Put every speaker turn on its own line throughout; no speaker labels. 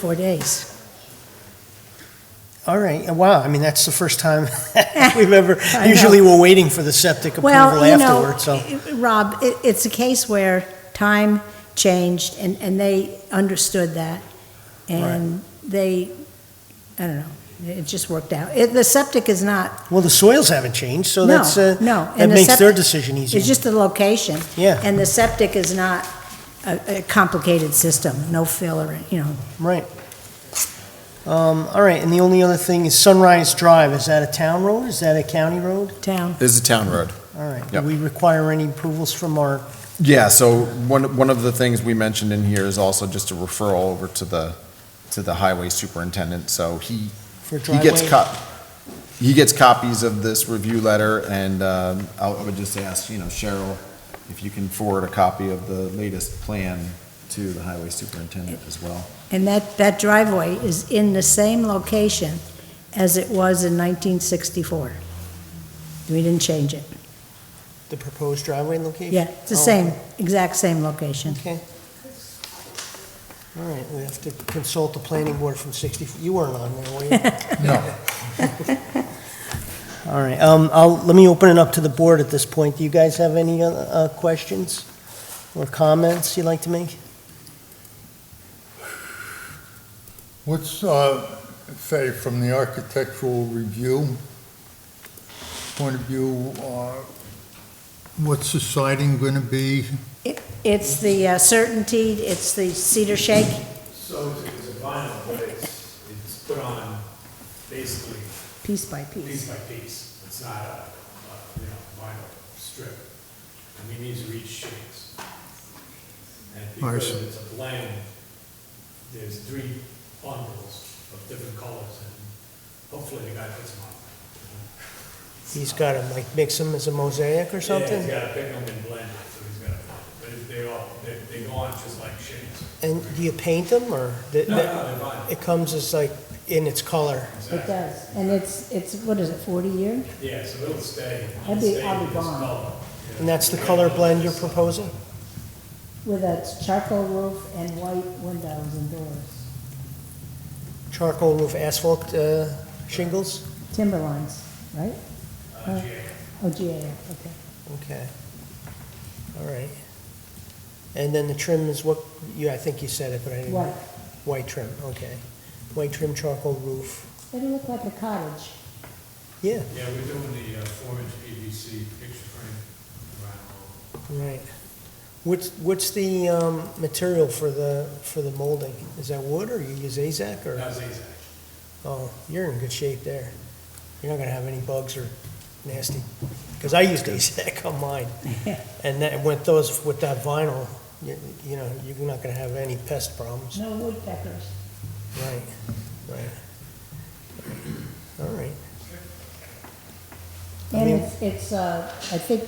four days.
All right, and wow, I mean, that's the first time we've ever, usually we're waiting for the septic approval
Well, you know,
afterward, so.
i- i- Rob, it, it's a case where time changed and, and they understood that. And they, I don't know, it just worked out. It, the septic is not,
Well, the soils haven't changed, so
no,
that's, uh,
no.
that
and the
makes their
septic-
decision
It's
easier.
just the location.
Yeah,
And the septic is not a, a complicated system, no filler, you know.
right. Um, All right, and the only other thing is Sunrise Drive, is that a town road, is that a county road?
town.
This is a town road.
All right, do
Yep.
we require any approvals from our,
Yeah, so one, one of the things we mentioned in here is also just a referral over to the, to the highway superintendent, so he,
for
he
driveway?
gets cop, he gets copies of this review letter, and um, I would just ask, you know, Cheryl, if you can forward a copy of the latest plan to the highway superintendent as well.
And that, that driveway is in the same location as it was in 1964. We didn't change it.
The proposed driveway location?
Yeah, it's the
Oh,
same, exact same location.
Okay. All right, we have to consult the planning board from 60, you weren't on there, were you?
No.
All right, um, I'll, let me open it up to the board at this point. Do you guys have any, uh, uh, questions or comments you'd like to make?
What's, uh, say, from the architectural review point of view, uh, what's the siding going to be?
It- It's the uh, certainty, it's the cedar shake
So it's a vinyl, but it's, it's put on basically
piece by
piece
piece.
by piece. It's not a, a, you know, vinyl strip. And we need to reach shapes. And
I
because
see.
it's a blend, there's three bundles of different colors and hopefully the guy puts them on.
He's got to like mix them as a mosaic or
Yeah, he's
something?
gotta pick them and blend it, so he's gotta, blend it. but they all, they, they go on just like shapes.
And do you paint them or? th-
No,
th-
no, they're vinyl.
It comes as like in its color.
It does, and it's, it's, what is it, 40 year?
Yeah, so it'll stay,
I'd
it'll
be-
stay
I'd be
in this
gone.
color.
And that's the color blend you're proposing?
With a charcoal roof and white windows and doors,
Charcoal roof asphalt, uh, shingles?
timberlines, right?
Uh, GA.
Oh, GAF, okay.
Okay. All right. And then the trim is what, you, I think you said it, but I didn't.
White.
White trim, okay. White trim, charcoal roof.
It'll look like a cottage.
Yeah,
Yeah, we're doing the uh, four-inch PVC picture frame around.
Right. What's, what's the um, material for the, for the molding? Is that wood, or you use AZAC, or?
That's Azak.
Oh, you're in good shape there. You're not gonna have any bugs or nasty, because I used AZAC on mine. And that, with those, with that vinyl, you you know, you're not gonna have any pest problems.
No woodpeckers.
Right, right. All right, I
And
mean-
it's, it's, uh, I think,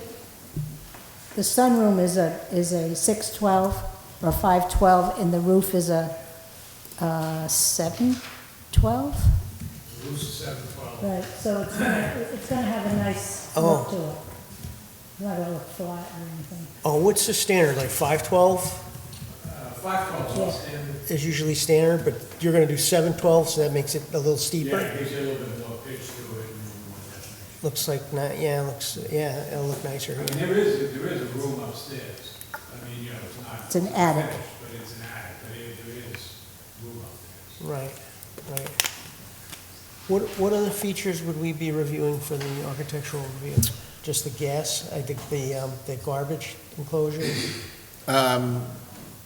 the sunroom is a, is a six twelve or five twelve, and the roof is a, uh, seven twelve?
Roof's seven twelve.
Right, so it's gonna, it's gonna have a nice look
Oh.
to it. Not gonna look flat or anything.
oh, what's the standard, like five twelve?
uh, Five twelve, and,
is usually standard, but you're gonna do seven twelve, so that makes it a little
yeah,
steeper.
it gives you a little bit more pitch to it. and
Looks like, not, yeah, looks, yeah, it'll look nicer.
more definition. I mean, there is, there is a room upstairs. I mean, you know, it's not.
It's an attic.
finished, But it's an attic, but it- there is room upstairs.
Right, right. What, what other features would we be reviewing for the architectural review? Just the gas, I think the, um, the garbage enclosure?
Um,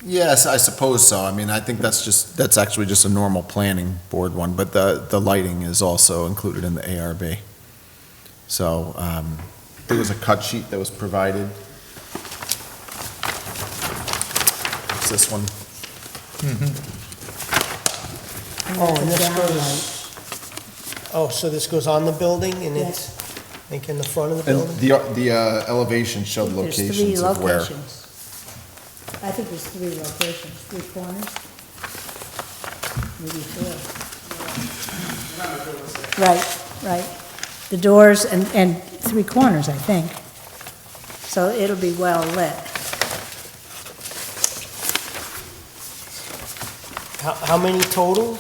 Yes, I suppose so. I mean, I think that's just, that's actually just a normal planning board one, but the, the lighting is also included in the ARB. So um, there was a cut sheet that was provided. It's this one.
Oh, and this
Downlight.
goes, oh, so this goes on the building and it's, like in the front of the
And
building?
the, the uh, elevation showed
There's three
locations of where.
locations. I think there's three locations, three corners, maybe four. Right, right. The doors and, and three corners, I think. So it'll be well lit.
How, how many total?